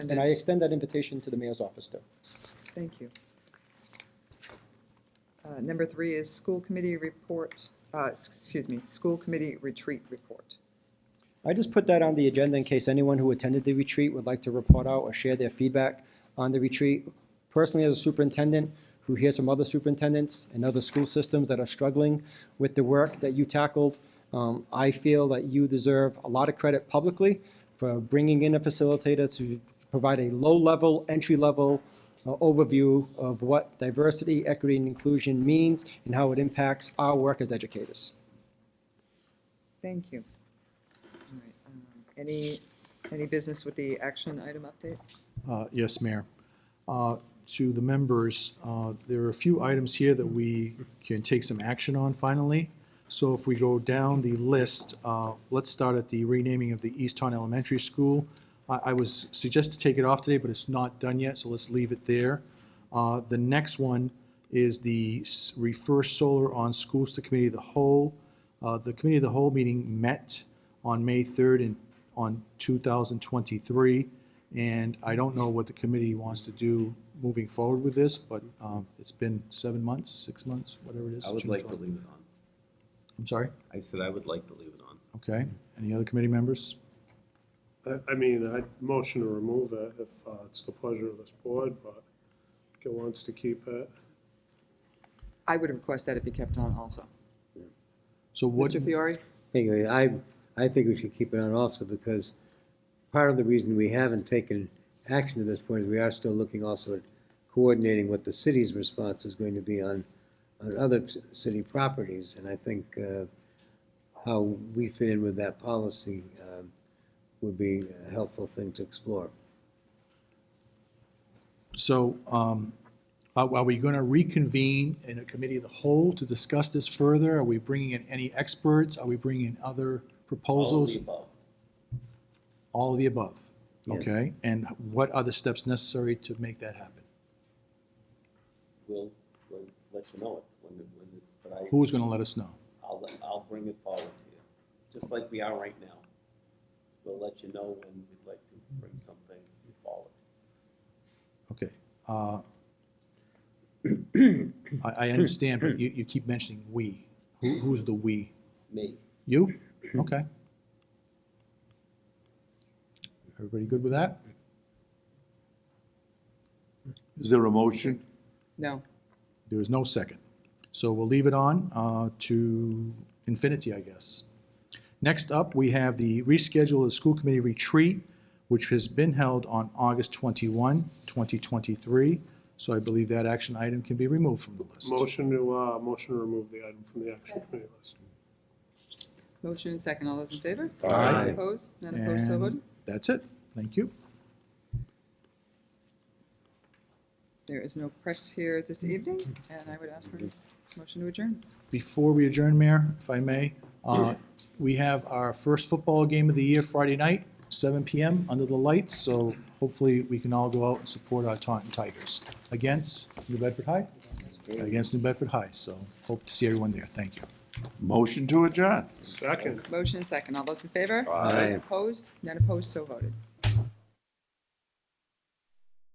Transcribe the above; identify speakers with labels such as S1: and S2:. S1: And I extend that invitation to the mayor's office too.
S2: Thank you. Uh, Number three is school committee report, uh, s- excuse me, school committee retreat report.
S1: I just put that on the agenda in case anyone who attended the retreat would like to report out or share their feedback on the retreat. Personally, as a superintendent who hears from other superintendents and other school systems that are struggling with the work that you tackled, um, I feel that you deserve a lot of credit publicly for bringing in a facilitator to provide a low-level, entry-level uh, overview of what diversity, equity, and inclusion means and how it impacts our work as educators.
S2: Thank you. All right, um, Any, any business with the action item update?
S3: Uh, Yes, Mayor. Uh, To the members, uh, there are a few items here that we can take some action on finally. So if we go down the list, uh, let's start at the renaming of the Easton Elementary School. I I was suggested to take it off today, but it's not done yet, so let's leave it there. Uh, The next one is the s- refer solar on schools to committee of the whole. Uh, The committee of the whole meeting met on May 3rd in, on 2023. And I don't know what the committee wants to do moving forward with this, but um, it's been seven months, six months, whatever it is.
S4: I would
S3: June,
S4: like to
S3: July.
S4: leave it on.
S3: I'm sorry?
S4: I said I would like to leave it on.
S3: Okay. Any other committee members?
S5: I, I mean, I'd motion to remove it if uh, it's the pleasure of this board, but if it wants to keep it.
S2: I would request that it be kept on also.
S3: So what,
S2: Mr. Fiore?
S6: Anyway, I, I think we should keep it on also because part of the reason we haven't taken action to this point is we are still looking also at coordinating what the city's response is going to be on, on other c- city properties. And I think uh, how we fit in with that policy um, would be a helpful thing to explore.
S3: so um, are are we going to reconvene in a committee of the whole to discuss this further? Are we bringing in any experts? Are we bringing in other proposals? All of the above.
S6: Yeah.
S3: Okay. And what are the steps necessary to make that happen?
S4: We'll, we'll let you know it when, it- when it's, but I,
S3: Who's going to let us know?
S4: I'll, I'll bring it forward to you, just like we are right now. We'll let you know when we'd like to bring something forward.
S3: Okay. uh, I, I understand, but you, you keep mentioning "we." Who, who's the "we"?
S4: Me,
S3: You? Okay. Everybody good with that?
S7: Is there a motion?
S2: No.
S3: There is no second. So we'll leave it on uh, to infinity, I guess. Next up, we have the reschedule of the school committee retreat, which has been held on August 21, 2023. So I believe that action item can be removed from the list.
S5: Motion to, uh, motion to remove the item from the action committee list.
S2: Motion and second. All those in favor?
S6: Aye.
S2: Opposed? None opposed, so
S3: And
S2: voted.
S3: That's it. Thank you.
S2: There is no press here this evening, and I would ask for a motion to adjourn.
S3: Before we adjourn, Mayor, if I may, uh, we have our first football game of the year Friday night, 7 PM, under the lights, so hopefully we can all go out and support our Taunton Tigers against New Bedford High, against New Bedford High, so hope to see everyone there. Thank you.
S7: Motion to adjourn.
S5: Second.
S2: Motion and second. All those in favor?
S6: Aye.
S2: Opposed? None opposed, so voted.